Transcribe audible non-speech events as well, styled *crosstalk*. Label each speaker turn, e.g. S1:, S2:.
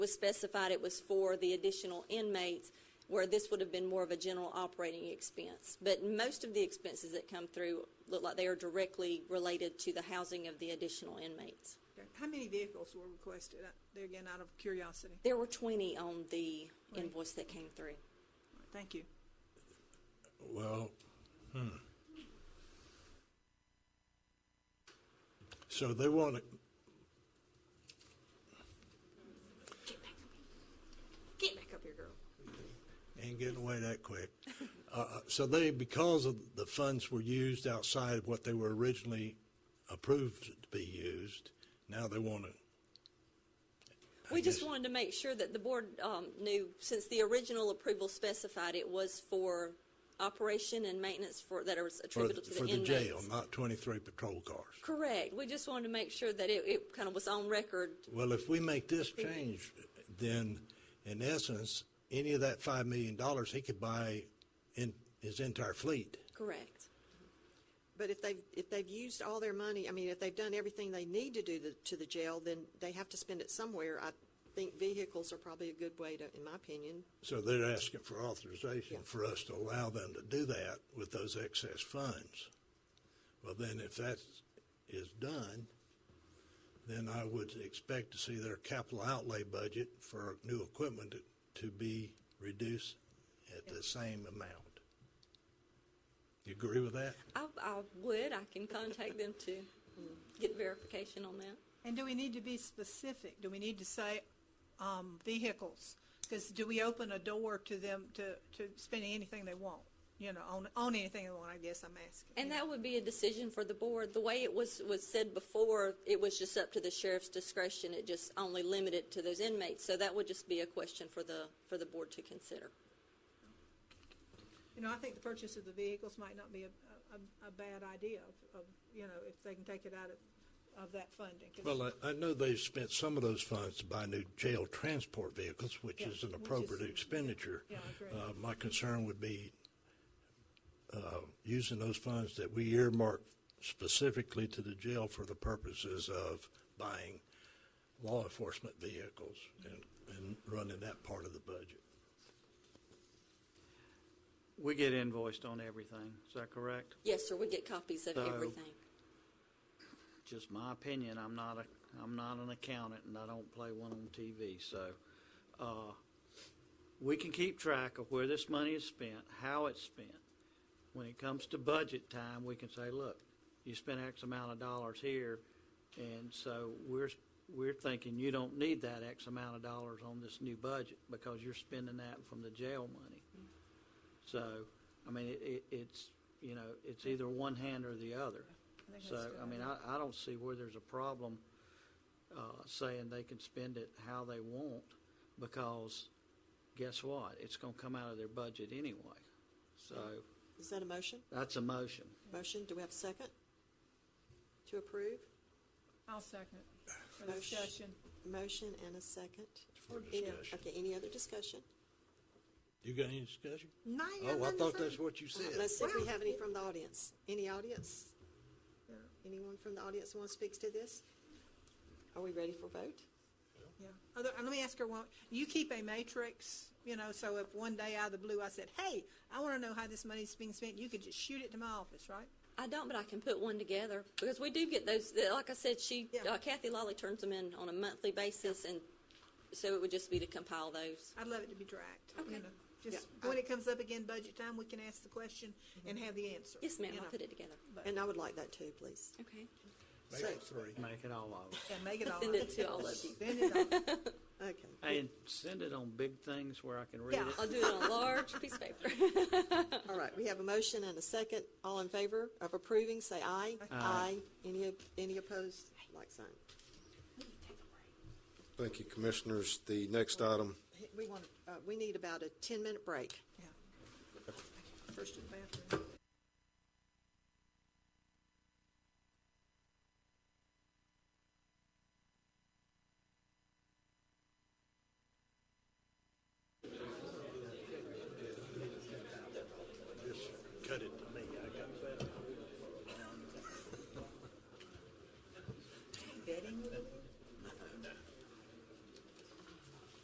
S1: was specified it was for the additional inmates, where this would have been more of a general operating expense. But most of the expenses that come through look like they are directly related to the housing of the additional inmates.
S2: Okay. How many vehicles were requested? Uh, There again, out of curiosity.
S1: There were 20 on the invoice that came through.
S2: Thank you.
S3: Well, hmm. So they want to,
S2: Get back up here, girl.
S3: ain't getting away that quick. *laughs* Uh, uh, so they, because of the funds were used outside of what they were originally approved to be used, now they want to,
S1: We just
S3: guess-
S1: wanted to make sure that the board um, knew, since the original approval specified it was for operation and maintenance for, that are
S3: for,
S1: attributable to the
S3: for the
S1: inmates.
S3: jail, not 23 patrol cars.
S1: Correct. We just wanted to make sure that it, it kind of was on record.
S3: Well, if we make this change, then in essence, any of that $5 million, he could buy in his entire fleet.
S1: Correct.
S4: But if they've, if they've used all their money, I mean, if they've done everything they need to do the- to the jail, then they have to spend it somewhere. I think vehicles are probably a good way to, in my opinion.
S3: So they're asking for authorization for us to allow them to do that with those excess funds. Well, then if that is done, then I would expect to see their capital outlay budget for new equipment to- to be reduced at the same amount. You agree with that?
S1: I, I would. I can contact them to get verification on that.
S2: And do we need to be specific? Do we need to say um, vehicles? Because do we open a door to them to, to spending anything they want? You know, on, on anything they want, I guess I'm asking.
S1: And that would be a decision for the board. The way it was, was said before, it was just up to the sheriff's discretion. It just only limited to those inmates. So that would just be a question for the, for the board to consider.
S2: You know, I think the purchase of the vehicles might not be a, a, a bad idea of, of, you know, if they can take it out of, of that funding. 'Cause-
S5: uh,
S3: Well, I, I know they've spent some of those funds to buy new jail transport vehicles, which
S2: Yeah,
S3: is an
S2: which is-
S3: appropriate expenditure.
S2: Yeah, I agree.
S3: Uh, my concern would be, uh, using those funds that we earmark specifically to the jail for the purposes of buying law enforcement vehicles and, and running that part of the budget.
S5: We get invoiced on everything, is that correct?
S1: Yes, sir, we get copies of
S5: So-
S1: everything.
S5: Just my opinion, I'm not a, I'm not an accountant and I don't play one on TV, so, uh, we can keep track of where this money is spent, how it's spent. When it comes to budget time, we can say, look, you spent X amount of dollars here, and so we're, we're thinking you don't need that X amount of dollars on this new budget because you're spending that from the jail money. So, I mean, it, it, it's, you know, it's either one hand or the other.
S2: I think that's
S5: So,
S2: a good
S5: I mean,
S2: idea.
S5: I, I don't see where there's a problem, uh, saying they can spend it how they want, because guess what? It's gonna come out of their budget anyway. So,
S4: Is that a motion?
S5: that's a motion.
S4: Motion, do we have a second? To approve?
S2: I'll second it for
S4: Motion.
S2: discussion.
S5: *laughs*
S4: Motion and a second?
S3: for
S4: Any-
S3: discussion.
S4: Okay, any other discussion?
S3: You got any discussion?
S2: No,
S3: Oh, I thought that's what you
S4: All right,
S3: said.
S4: Let's see if we have any from the audience. Any audience? Anyone from the audience want to speak to this? Are we ready for vote?
S2: Yeah. Other, and let me ask her one. You keep a matrix, you know, so if one day out of the blue I said, hey, I want to know how this money's being spent, you could just shoot it to my office, right?
S1: I don't, but I can put one together because we do get those. Like I said, she
S2: Yeah.
S1: uh, Kathy Lolly turns them in on a monthly basis, and so it would just be to compile those.
S2: I'd love it to be tracked. you
S1: Okay.
S2: know. Just
S4: Yeah.
S2: when it comes up again, budget time, we can ask the question and have the answer.
S1: Mm-hmm. Yes, ma'am.
S2: you
S1: I'll
S2: know.
S1: put it together.
S4: And I would like that too, please.
S1: Okay.
S3: Make it three.
S5: Make it all of us.
S2: Yeah,
S1: *laughs*
S2: make it all.
S1: Send it to all of you.
S2: Send it
S1: *laughs*
S2: all.
S4: Okay.
S5: And send it on big things where I can read
S2: Yeah,
S5: it.
S1: I'll do it on a large piece of paper.
S4: All right, we have a motion and a second. All in favor of approving, say aye. Aye. Any, op- any opposed, like sign.
S6: Thank you, Commissioners. The next item,
S4: We want, uh, we need about a 10-minute break.
S2: Yeah. First to the bathroom.